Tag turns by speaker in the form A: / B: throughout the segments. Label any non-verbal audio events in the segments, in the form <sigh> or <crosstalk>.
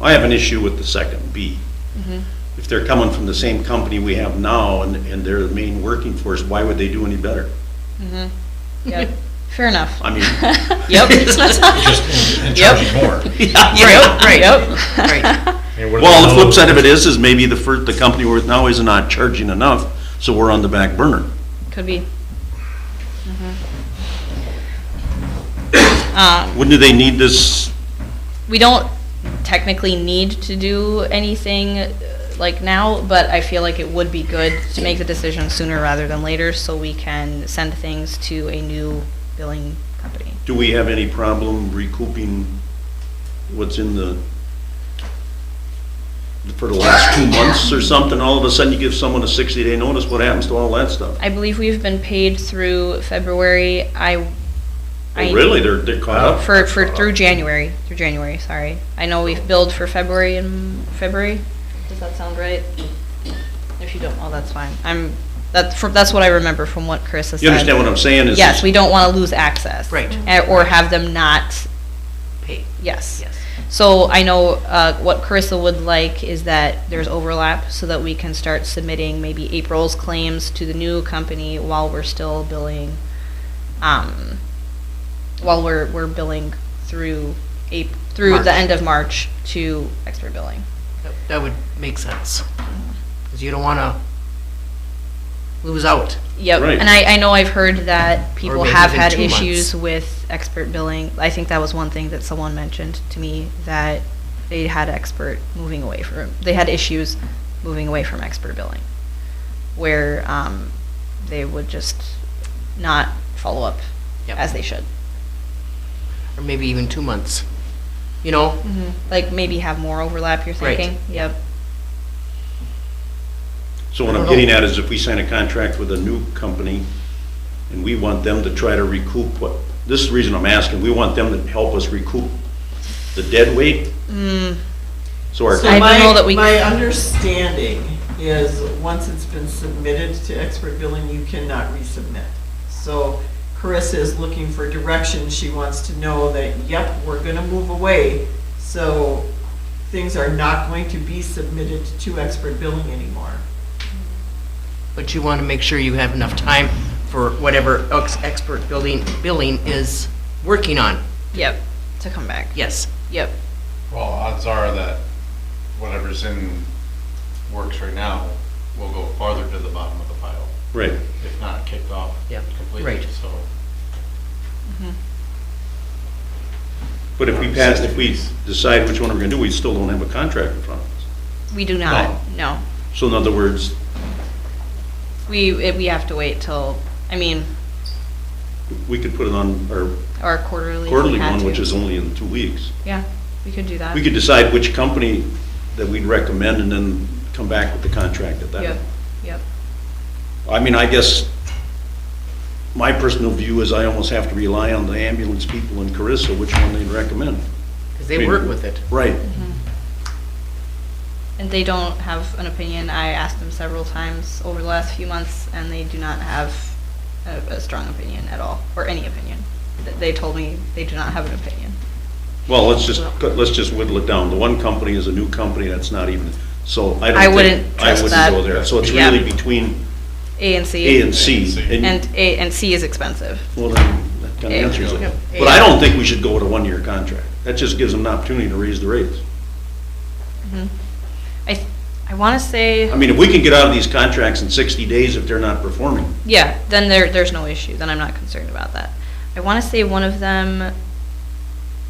A: I have an issue with the second B.
B: Mm-hmm.
A: If they're coming from the same company we have now and, and they're the main working force, why would they do any better?
B: Yep. Fair enough.
A: I mean. <laughs>
B: <laughs> Yep.
C: Just in- in
B: Yep.
C: charge more.
B: Right, right,
C: I mean, what
A: Well, the
C: about-
A: flip side of it is, is maybe the first, the company we're with now is not charging enough, so we're on the back burner.
B: <laughs> Could be. Mhm. Um,
A: Wouldn't they need this,
B: we don't technically need to do anything uh, like now, but I feel like it would be good to make the decision sooner rather than later so we can send things to a new billing company.
A: do we have any problem recouping what's in the, for the last two months or something, all of a sudden you give someone a sixty day notice, what happens to all that stuff?
B: I believe we've been paid through February. I, I
A: Oh, Really, they're, they're caught up?
B: for for through January through January. Sorry, I know we've billed for February and February. Does that sound right? If you don't, well, that's fine. I'm that's from, that's what I remember from what Chris has
A: You
B: said.
A: understand what I'm saying? Is
B: Yes, we don't want to lose access.
D: Right.
B: Eh, Or have them not,
D: Paid,
B: yes.
D: yes.
B: So I know uh, what Carissa would like is that there's overlap so that we can start submitting maybe April's claims to the new company while we're still billing, um, while we're, we're billing through Ap, through the
D: March.
B: end of March to expert billing.
D: That- That would make sense. Because you don't want to lose out.
B: Yep,
A: Right.
B: and I, I know I've heard that people
D: maybe
B: have
D: even
B: had
D: two
B: issues with expert billing. I think that was one thing that someone mentioned to me, that they had expert moving away from, they had issues moving away from expert billing, where um, they would just not follow up
D: Yep.
B: as they should.
D: Or maybe even two months. You know?
E: Mm-hmm.
B: Like maybe have more overlap, you're
D: Right.
B: thinking? Yep.
A: So what I'm getting at is if we sign a contract with a new company and we want them to try to recoup what, this is the reason I'm asking, we want them to help us recoup the dead weight?
B: Mm.
A: So our,
B: I
E: So
B: don't know that
E: my,
B: we-
E: my understanding is, once it's been submitted to expert billing, you cannot resubmit. So Carissa is looking for direction, she wants to know that, yep, we're gonna move away, so things are not going to be submitted to expert billing anymore.
D: But you want to make sure you have enough time for whatever ex- expert building, billing is working on.
B: Yep, to come back.
D: Yes.
B: Yep.
C: Well, odds are that whatever's in works right now will go farther to the bottom of the pile,
A: right,
C: if not kicked off
D: Yeah,
C: completely,
D: right.
C: so.
A: but if we pass, if we decide which one we're gonna do, we still don't have a contract in front of us.
B: We do not, no.
A: So in other words,
B: We, it- we have to wait till, I mean,
A: we could put it on our
B: our quarterly. if we
A: quarterly
B: had
A: one,
B: to.
A: which is only in two weeks.
B: Yeah, we could do that.
A: We could decide which company that we'd recommend and then come back with the contract at that
B: Yep,
A: point.
B: yep.
A: I mean, I guess my personal view is I almost have to rely on the ambulance people in Carissa, which one they'd recommend.
D: Because
A: I
D: they
A: mean,
D: work with it.
A: Right.
B: And they don't have an opinion. I asked them several times over the last few months, and they do not have a, a strong opinion at all, or any opinion. Th- They told me they do not have an opinion.
A: Well, let's just, let's just whittle it down. The one company is a new company that's not even, so I don't
B: I
A: think.
B: wouldn't
A: I
B: trust
A: wouldn't
B: that.
A: go there. So it's
B: Yeah.
A: really between
B: A and C.
A: A and C.
C: A and C.
B: And A and C is expensive.
A: Well, then, that kind
B: A.
A: of answers
B: Yep.
A: it.
D: A.
A: But I don't think we should go with a one-year contract. That just gives them an opportunity to raise the rates.
B: I, th- I want to
A: I
B: say,
A: mean, if we can get out of these contracts in 60 days if they're not performing,
B: yeah, then there, there's no issue. Then I'm not concerned about that. I want to say one of them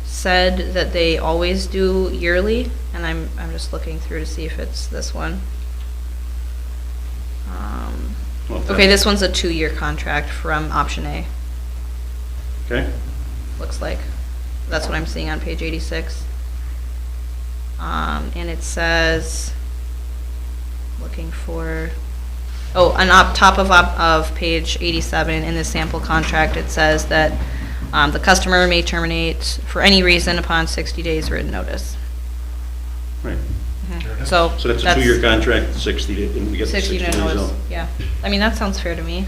B: said that they always do yearly, and I'm, I'm just looking through to see if it's this one. Um,
A: well,
B: Okay,
A: then-
B: this one's a two-year contract from option A,
A: Okay?
B: looks like. That's what I'm seeing on page 86. Um, and it says, looking for, oh, on op, top of, op- of page 87, in the sample contract, it says that, um, the customer may terminate for any reason upon 60 days written notice.
A: Right.
B: So.
A: So that's a two-year contract, 60 days, and we get the 60
B: 60
A: days
B: notice,
A: out.
B: yeah. I mean, that sounds fair to me.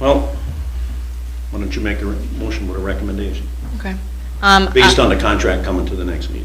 A: Well, why don't you make a re- motion with a recommendation,
B: Okay. Um, uh,
A: based
B: I-
A: on the contract coming to the next meeting?